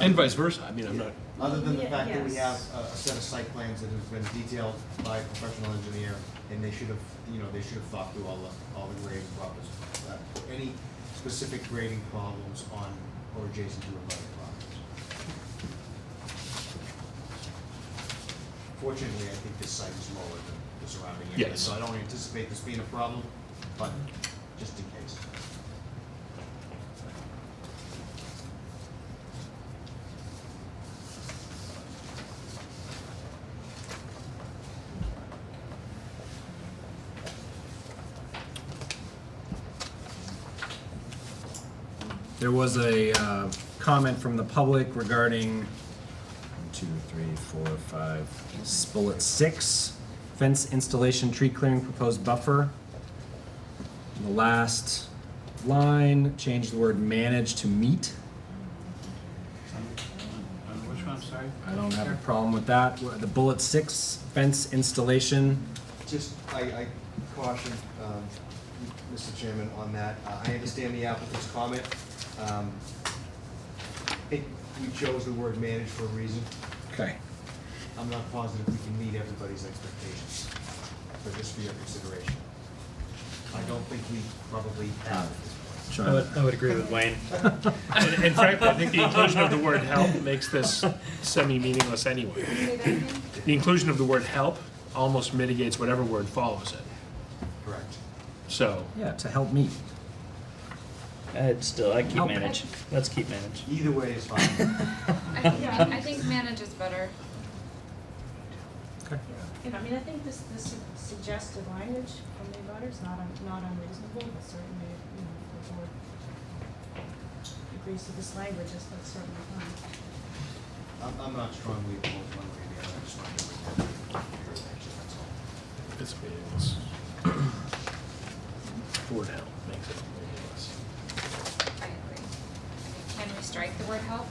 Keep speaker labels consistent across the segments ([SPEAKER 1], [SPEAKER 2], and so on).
[SPEAKER 1] And vice versa, I mean, I'm not,
[SPEAKER 2] Other than the
[SPEAKER 3] Yeah,
[SPEAKER 2] fact that we have
[SPEAKER 3] yes.
[SPEAKER 2] a, a set of site plans that have been detailed by a professional engineer, and they should have, you know, they should have thought through all the, all the grading problems, uh, any specific grading problems on or adjacent to abutting properties. Fortunately, I think this site is lower than the surrounding area,
[SPEAKER 1] Yes.
[SPEAKER 2] so I don't anticipate this being a problem, but just in case.
[SPEAKER 4] There was a uh, comment from the public regarding one, two, three, four, five, s- bullet six, fence installation, tree clearing, proposed buffer. The last line, change the word manage to meet.
[SPEAKER 5] On which one, I'm sorry?
[SPEAKER 4] I don't have a problem with that. Wha- The bullet six, fence installation,
[SPEAKER 2] Just, I, I caution, um, Mr. Chairman, on that. Uh, I understand the applicant's comment. Um, I think we chose the word manage for a reason.
[SPEAKER 4] okay.
[SPEAKER 2] I'm not positive we can meet everybody's expectations, but just for your consideration. I don't think we probably have at this point.
[SPEAKER 4] Sean.
[SPEAKER 6] I would, I would agree with Wayne. And and frankly, I think the inclusion of the word help makes this semi-meaningless anyway. The inclusion of the word help almost mitigates whatever word follows it.
[SPEAKER 2] Correct.
[SPEAKER 6] So,
[SPEAKER 4] Yeah, to help meet.
[SPEAKER 7] I'd Uh, still, I'd keep
[SPEAKER 4] Help.
[SPEAKER 7] manage. Let's keep manage.
[SPEAKER 2] Either way is fine.
[SPEAKER 8] I think, I think manage is better.
[SPEAKER 4] Okay.
[SPEAKER 3] And I mean, I think this, this suggested language from the abutters not, un- not unreasonable, but certainly, you know, if the board agrees to this language, that's that's certainly fine.
[SPEAKER 2] I'm, I'm not strongly opposed one way or the other, I just want to bring that to your attention, that's all.
[SPEAKER 6] it's meaningless. The word help makes it meaningless.
[SPEAKER 8] I agree. I mean, Can we strike the word help?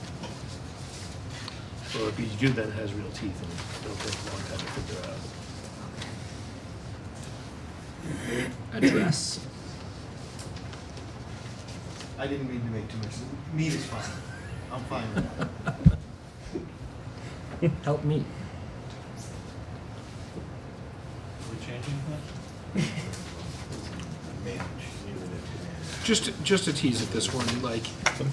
[SPEAKER 6] Or if you do, then it has real teeth and it'll take a long time to figure out.
[SPEAKER 4] Address.
[SPEAKER 2] I didn't mean to make too much, meet is fine. I'm fine with that.
[SPEAKER 4] Help meet.
[SPEAKER 5] Are we changing that?
[SPEAKER 6] Just, just to tease at this one, like,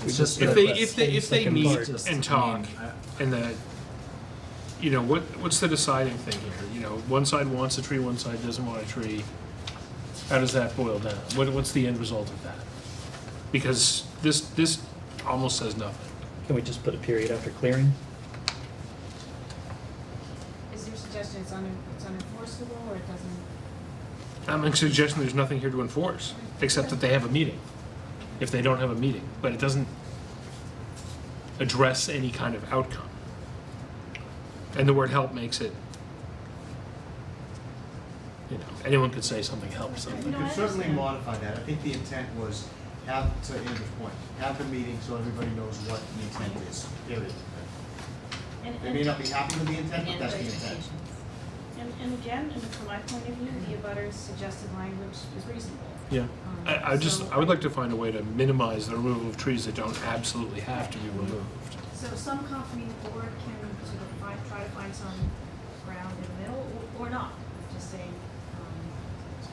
[SPEAKER 4] It's just
[SPEAKER 6] if
[SPEAKER 4] the-
[SPEAKER 6] they, if they, if they
[SPEAKER 4] Second
[SPEAKER 6] meet
[SPEAKER 4] part.
[SPEAKER 6] and
[SPEAKER 4] Just, I
[SPEAKER 6] talk,
[SPEAKER 4] mean, I-
[SPEAKER 6] and the, you know, what, what's the deciding thing here? You know, one side wants a tree, one side doesn't want a tree. How does that boil down? What, what's the end result of that? Because this, this almost says nothing.
[SPEAKER 7] Can we just put a period after clearing?
[SPEAKER 3] Is your suggestion it's un, it's unenforceable, or it doesn't?
[SPEAKER 6] I'm suggesting there's nothing here to enforce, except that they have a meeting, if they don't have a meeting, but it doesn't address any kind of outcome. And the word help makes it, you know, anyone could say something helps
[SPEAKER 2] We
[SPEAKER 6] something.
[SPEAKER 3] No, I
[SPEAKER 2] could certainly
[SPEAKER 3] understand.
[SPEAKER 2] modify that. I think the intent was have, to Andrew's point, have the meeting so everybody knows what the intent is, period.
[SPEAKER 3] and-
[SPEAKER 2] They
[SPEAKER 3] and-
[SPEAKER 2] may not be happy with the intent, but that's the intent.
[SPEAKER 3] And, and again, and from my point of view, the abutters suggested language is reasonable.
[SPEAKER 6] Yeah.
[SPEAKER 3] Um,
[SPEAKER 6] I, I just,
[SPEAKER 3] so-
[SPEAKER 6] I would like to find a way to minimize the removal of trees that don't absolutely have to be removed.
[SPEAKER 3] So some company the board can sort of find, try to find some ground in the middle, or, or not, just say, um, it's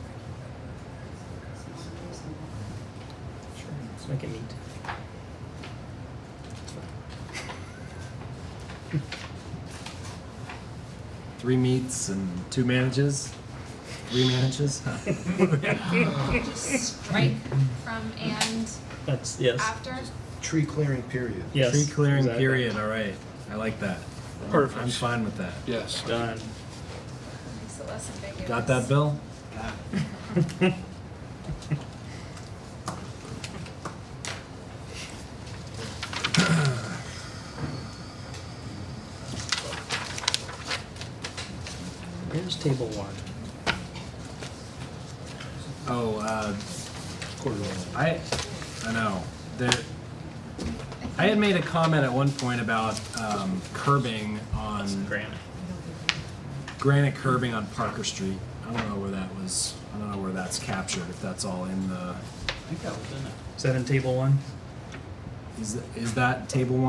[SPEAKER 3] not unreasonable.
[SPEAKER 7] Sure. Let's make it meet.
[SPEAKER 4] Three meets and two manages, three manages.
[SPEAKER 8] Just strike from and
[SPEAKER 7] That's, yes,
[SPEAKER 8] after?
[SPEAKER 2] Tree clearing, period.
[SPEAKER 7] yes.
[SPEAKER 4] Tree clearing
[SPEAKER 7] exactly.
[SPEAKER 4] period. All right, I like that. I'm-
[SPEAKER 6] Perfect.
[SPEAKER 4] I'm fine with that.
[SPEAKER 6] Yes.
[SPEAKER 7] Done.
[SPEAKER 8] Makes it less ambiguous.
[SPEAKER 4] Got that, Bill?
[SPEAKER 7] Here's table one.
[SPEAKER 4] Oh, uh,
[SPEAKER 6] Corridor.
[SPEAKER 4] I, I know. There, I had made a comment at one point about um, curbing on
[SPEAKER 7] Granite.
[SPEAKER 4] granite curbing on Parker Street. I don't know where that was. I don't know where that's captured. If that's all in the,
[SPEAKER 5] I think that was in it.
[SPEAKER 7] Is that in table one?
[SPEAKER 4] is is that table one?